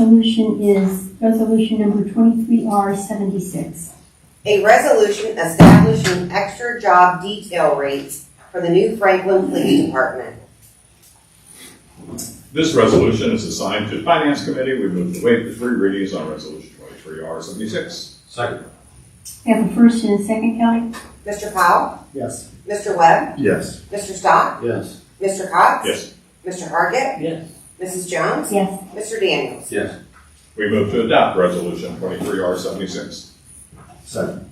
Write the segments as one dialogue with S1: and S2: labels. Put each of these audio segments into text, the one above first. S1: Resolution is resolution number twenty-three R seventy-six.
S2: A resolution establishing extra job detail rates for the new Franklin Police Department.
S3: This resolution is assigned to the Finance Committee. We move to waive the three readings on Resolution 23R76.
S4: Second.
S1: We have a first and a second, Kelly?
S2: Mr. Powell?
S4: Yes.
S2: Mr. Webb?
S5: Yes.
S2: Mr. Stock?
S4: Yes.
S2: Mr. Cox?
S3: Yes.
S2: Mr. Hargit?
S4: Yes.
S2: Mrs. Jones?
S1: Yes.
S2: Mr. Daniels?
S4: Yes.
S3: We move to adopt Resolution 23R76.
S5: Second.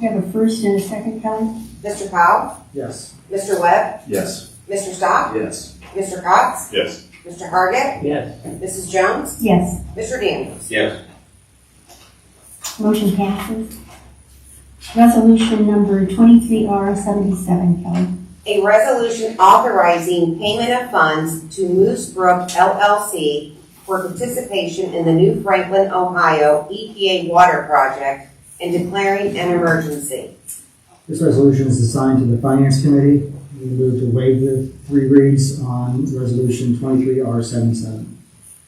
S1: We have a first and a second, Kelly?
S2: Mr. Powell?
S4: Yes.
S2: Mr. Webb?
S5: Yes.
S2: Mr. Stock?
S5: Yes.
S2: Mr. Cox?
S3: Yes.
S2: Mr. Hargit?
S4: Yes.
S2: Mrs. Jones?
S1: Yes.
S2: Mr. Daniels?
S4: Yes.
S1: Motion passes. Resolution number twenty-three R seventy-seven, Kelly?
S2: A resolution authorizing payment of funds to Moose Brook LLC for participation in the new Franklin, Ohio EPA water project and declaring an emergency.
S6: This resolution is assigned to the Finance Committee. We move to waive the three reads on Resolution 23R77.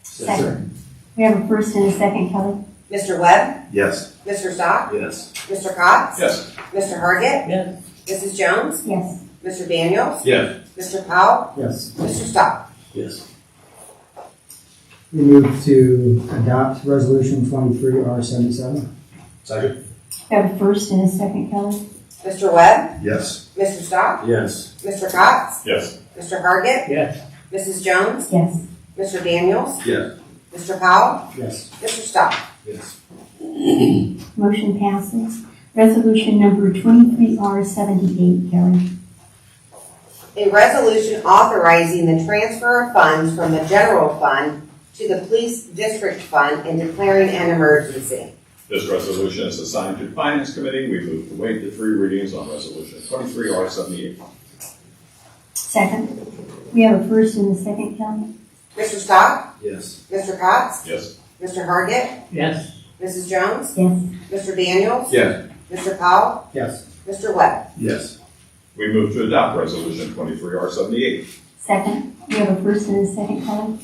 S1: Second. We have a first and a second, Kelly?
S2: Mr. Webb?
S5: Yes.
S2: Mr. Stock?
S5: Yes.
S2: Mr. Cox?
S3: Yes.
S2: Mr. Hargit?
S4: Yes.
S2: Mrs. Jones?
S1: Yes.
S2: Mr. Daniels?
S4: Yes.
S2: Mr. Powell?
S6: Yes.
S2: Mr. Stock?
S4: Yes.
S6: We move to adopt Resolution 23R77.
S4: Second.
S1: We have a first and a second, Kelly?
S2: Mr. Webb?
S5: Yes.
S2: Mr. Stock?
S4: Yes.
S2: Mr. Cox?
S3: Yes.
S2: Mr. Hargit?
S4: Yes.
S2: Mrs. Jones?
S1: Yes.
S2: Mr. Daniels?
S4: Yes.
S2: Mr. Powell?
S6: Yes.
S2: Mr. Stock?
S4: Yes.
S1: Motion passes. Resolution number twenty-three R seventy-eight, Kelly?
S2: A resolution authorizing the transfer of funds from the general fund to the police district fund and declaring an emergency.
S3: This resolution is assigned to the Finance Committee. We move to waive the three readings on Resolution 23R78.
S1: Second. We have a first and a second, Kelly?
S2: Mr. Stock?
S4: Yes.
S2: Mr. Cox?
S3: Yes.
S2: Mr. Hargit?
S4: Yes.
S2: Mrs. Jones?
S1: Yes.
S2: Mr. Daniels?
S4: Yes.
S2: Mr. Powell?
S6: Yes.
S2: Mr. Webb?
S5: Yes.
S3: We move to adopt Resolution 23R78.
S1: Second, we have a first and a second, Kelly?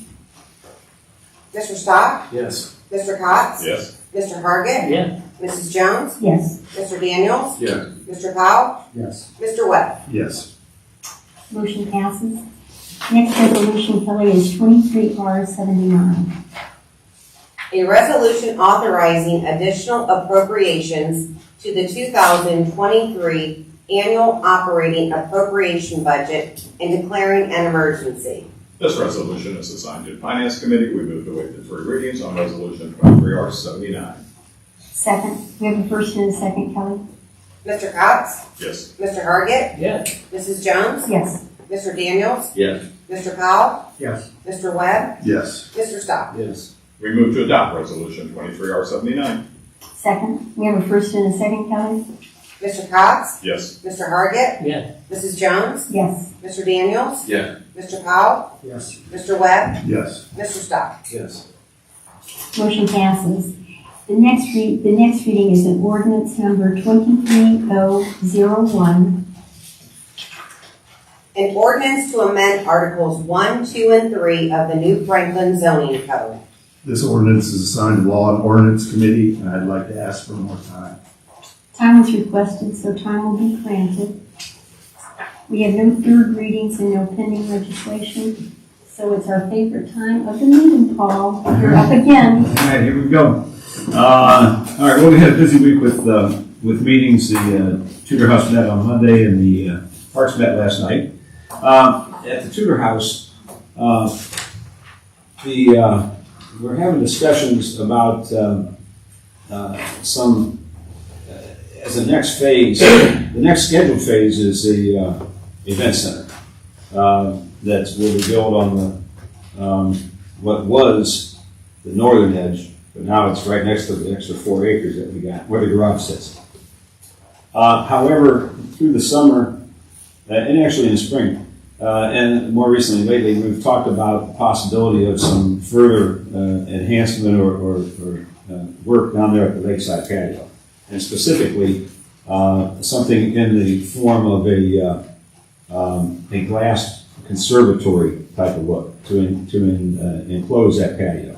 S2: Mr. Stock?
S4: Yes.
S2: Mr. Cox?
S3: Yes.
S2: Mr. Hargit?
S4: Yes.
S2: Mrs. Jones?
S1: Yes.
S2: Mr. Daniels?
S4: Yes.
S2: Mr. Powell?
S6: Yes.
S2: Mr. Webb?
S5: Yes.
S1: Motion passes. Next resolution, Kelly, is twenty-three R seventy-nine.
S2: A resolution authorizing additional appropriations to the two thousand twenty-three annual operating appropriation budget and declaring an emergency.
S3: This resolution is assigned to the Finance Committee. We move to waive the three readings on Resolution 23R79.
S1: Second, we have a first and a second, Kelly?
S2: Mr. Cox?
S3: Yes.
S2: Mr. Hargit?
S4: Yes.
S2: Mrs. Jones?
S1: Yes.
S2: Mr. Daniels?
S4: Yes.
S2: Mr. Powell?
S6: Yes.
S2: Mr. Webb?
S5: Yes.
S2: Mr. Stock?
S4: Yes.
S3: We move to adopt Resolution 23R79.
S1: Second, we have a first and a second, Kelly?
S2: Mr. Cox?
S3: Yes.
S2: Mr. Hargit?
S4: Yes.
S2: Mrs. Jones?
S1: Yes.
S2: Mr. Daniels?
S4: Yes.
S2: Mr. Powell?
S6: Yes.
S2: Mr. Webb?
S5: Yes.
S2: Mr. Stock?
S4: Yes.
S1: Motion passes. The next read, the next reading is an ordinance number twenty-three oh zero one.
S2: An ordinance to amend Articles 1, 2, and 3 of the new Franklin zoning code.
S5: This ordinance is assigned to Law and Ordinance Committee, and I'd like to ask for more time.
S1: Time was requested, so time will be granted. We have no third readings and no pending legislation, so it's our favorite time of the meeting, Paul. You're up again.
S7: All right, here we go. Uh, All right, well, we had a busy week with, uh, with meetings, the uh, Tudor House met on Monday and the uh, Parks met last night. Uh, At the Tudor House, uh, the, uh, we're having discussions about um, uh, some, uh, as a next phase, the next scheduled phase is the uh, event center. uh, That will be built on the, um, what was the northern edge, but now it's right next to the extra four acres that we got, where the garage sits. Uh, however, through the summer, uh, and actually in the spring, uh, and more recently lately, we've talked about the possibility of some further uh, enhancement or, or, or uh, work down there at the lakeside patio. And specifically, uh, something in the form of a, uh, um, a glass conservatory type of look to, en- to en- uh, enclose that patio.